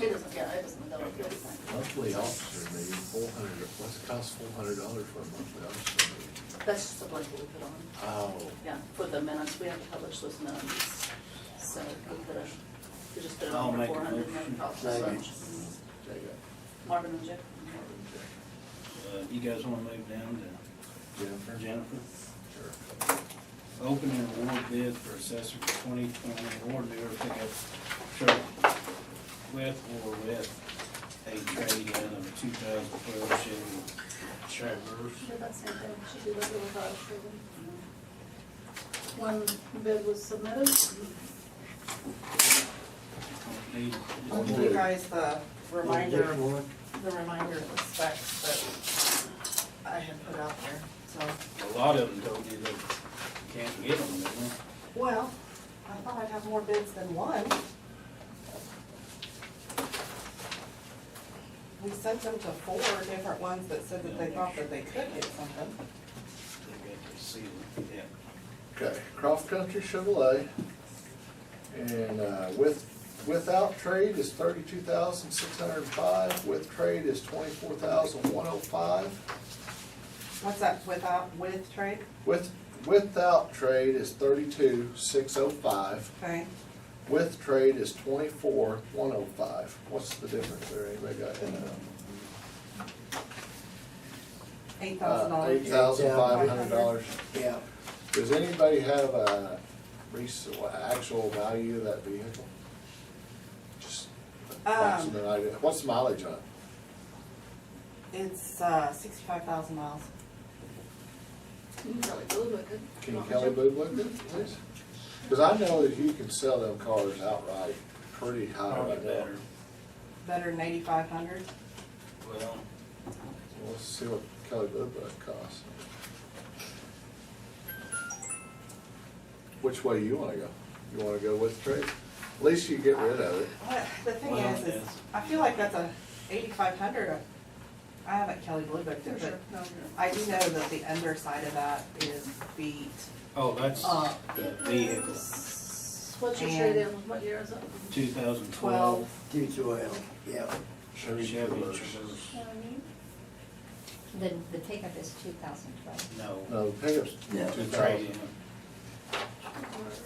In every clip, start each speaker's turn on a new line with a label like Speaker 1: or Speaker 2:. Speaker 1: it doesn't go with this one.
Speaker 2: Monthly officer meeting, four hundred, what's it cost four hundred dollars for a monthly officer meeting?
Speaker 1: That's just the blanket we put on.
Speaker 2: Oh,
Speaker 1: Yeah, for the minutes, we have to publish those minutes. So we could have, we just put it
Speaker 3: I'll
Speaker 1: on for
Speaker 3: make a
Speaker 1: four hundred and
Speaker 3: motion.
Speaker 1: then
Speaker 2: check it.
Speaker 1: Marvin and Jeff.
Speaker 2: Marvin, check
Speaker 3: Uh, You guys wanna move down to
Speaker 2: it. Jennifer?
Speaker 3: Jennifer?
Speaker 2: Sure.
Speaker 3: Open and award bid for assessor twenty twenty award bidder pickup truck with or with a trade-in of two thousand twelve Chevy Traverse.
Speaker 4: Did that same thing, she did that with our children. One bid was submitted,
Speaker 3: Don't need-
Speaker 5: I'll give you guys the reminder,
Speaker 2: Which one?
Speaker 5: the reminder of the specs that I had put out there, so.
Speaker 3: A lot of them told you they can't get them, didn't they?
Speaker 5: Well, I thought I'd have more bids than one. We sent them to four different ones that said that they thought that they could get something.
Speaker 3: They got to see them, yeah.
Speaker 2: Okay, Cross Country Chevrolet. And uh, with, without trade is thirty-two thousand six hundred and five, with trade is twenty-four thousand one oh five.
Speaker 5: What's that, without, with trade?
Speaker 2: With, without trade is thirty-two six oh five,
Speaker 5: Okay,
Speaker 2: with trade is twenty-four one oh five. What's the difference there, anybody got that?
Speaker 5: eight thousand dollars.
Speaker 2: Uh, Eight thousand five hundred dollars.
Speaker 6: Yeah,
Speaker 2: Does anybody have a res, actual value of that vehicle? Just
Speaker 5: Um,
Speaker 2: approximate idea, what's the mileage on it?
Speaker 5: It's, uh, sixty-five thousand miles.
Speaker 1: Kelly Blue Book.
Speaker 2: Can Kelly Blue look at please? Cause I know that you can sell them cars outright pretty high
Speaker 3: Probably
Speaker 2: right now.
Speaker 3: better.
Speaker 5: Better than eighty-five hundred.
Speaker 3: Well,
Speaker 2: Well, Let's see what Kelly Blue Book costs. Which way you wanna go? You wanna go with the trade? At least you get rid of it.
Speaker 5: What, the thing
Speaker 3: Well,
Speaker 5: is, is
Speaker 3: yes.
Speaker 5: I feel like that's a eighty-five hundred. I haven't Kelly Blue booked it, but I do know that the underside of that is beat
Speaker 3: oh, that's
Speaker 5: Uh,
Speaker 3: the vehicle,
Speaker 1: What's your
Speaker 5: And-
Speaker 1: trade-in, what year is it?
Speaker 3: two thousand
Speaker 5: twelve.
Speaker 3: twelve
Speaker 6: two twelve, uh, yeah.
Speaker 3: Chevy Traverse.
Speaker 7: The, the take-up is two thousand twelve.
Speaker 3: No,
Speaker 2: No, the pickup's
Speaker 6: No.
Speaker 2: two
Speaker 3: the
Speaker 2: thousand.
Speaker 3: trade-in.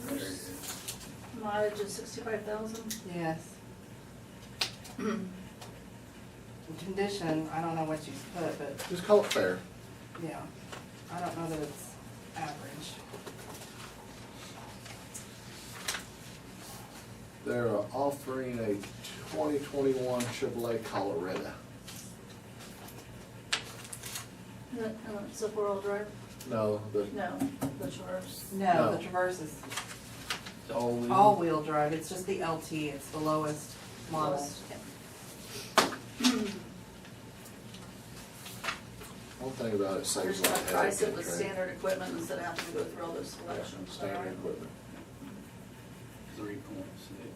Speaker 3: There it is.
Speaker 1: Mileage is sixty-five thousand.
Speaker 5: Yes. Condition, I don't know what you put, but,
Speaker 2: Just call it fair.
Speaker 5: yeah, I don't know that it's average.
Speaker 2: They're offering a twenty twenty-one Chevrolet Colorado.
Speaker 1: It's a four-wheel drive?
Speaker 2: No, the
Speaker 1: No, the Traverse.
Speaker 5: No, the
Speaker 2: No. Mm-hmm.
Speaker 5: Traverse is
Speaker 3: All-wheel.
Speaker 5: all-wheel drive, it's just the LT, it's the lowest model.
Speaker 1: Lowest,
Speaker 2: one thing about it saves
Speaker 1: There's
Speaker 2: a lot
Speaker 1: no
Speaker 2: of headache.
Speaker 1: price, it
Speaker 2: and
Speaker 1: was
Speaker 2: trade.
Speaker 1: standard equipment instead of having to go through all those
Speaker 2: Yeah,
Speaker 1: selections.
Speaker 2: Standard equipment.
Speaker 3: Three point six.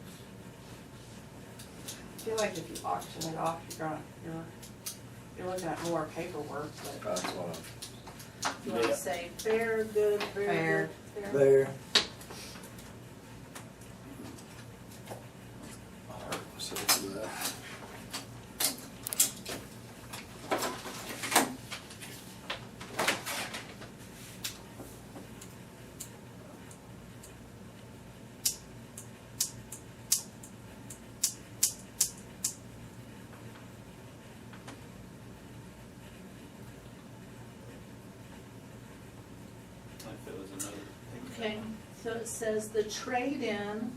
Speaker 5: I feel like if you auction it off, you're gonna, you're, you're looking at more paperwork, but,
Speaker 2: That's what
Speaker 1: You wanna
Speaker 3: Yeah.
Speaker 1: say fair, good, fair,
Speaker 5: Fair.
Speaker 1: good, fair?
Speaker 6: There,
Speaker 2: I hurt myself with that.
Speaker 3: Like that was another.
Speaker 1: Okay, so it says the trade-in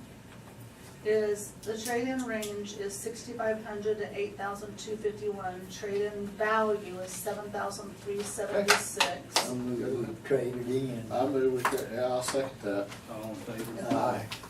Speaker 1: is, the trade-in range is sixty-five hundred to eight thousand two fifty-one. Trade-in value is seven thousand three seventy-six.
Speaker 6: I'm gonna trade it in.
Speaker 2: I move with, yeah, I'll second that.
Speaker 3: All in favor?
Speaker 6: Aye.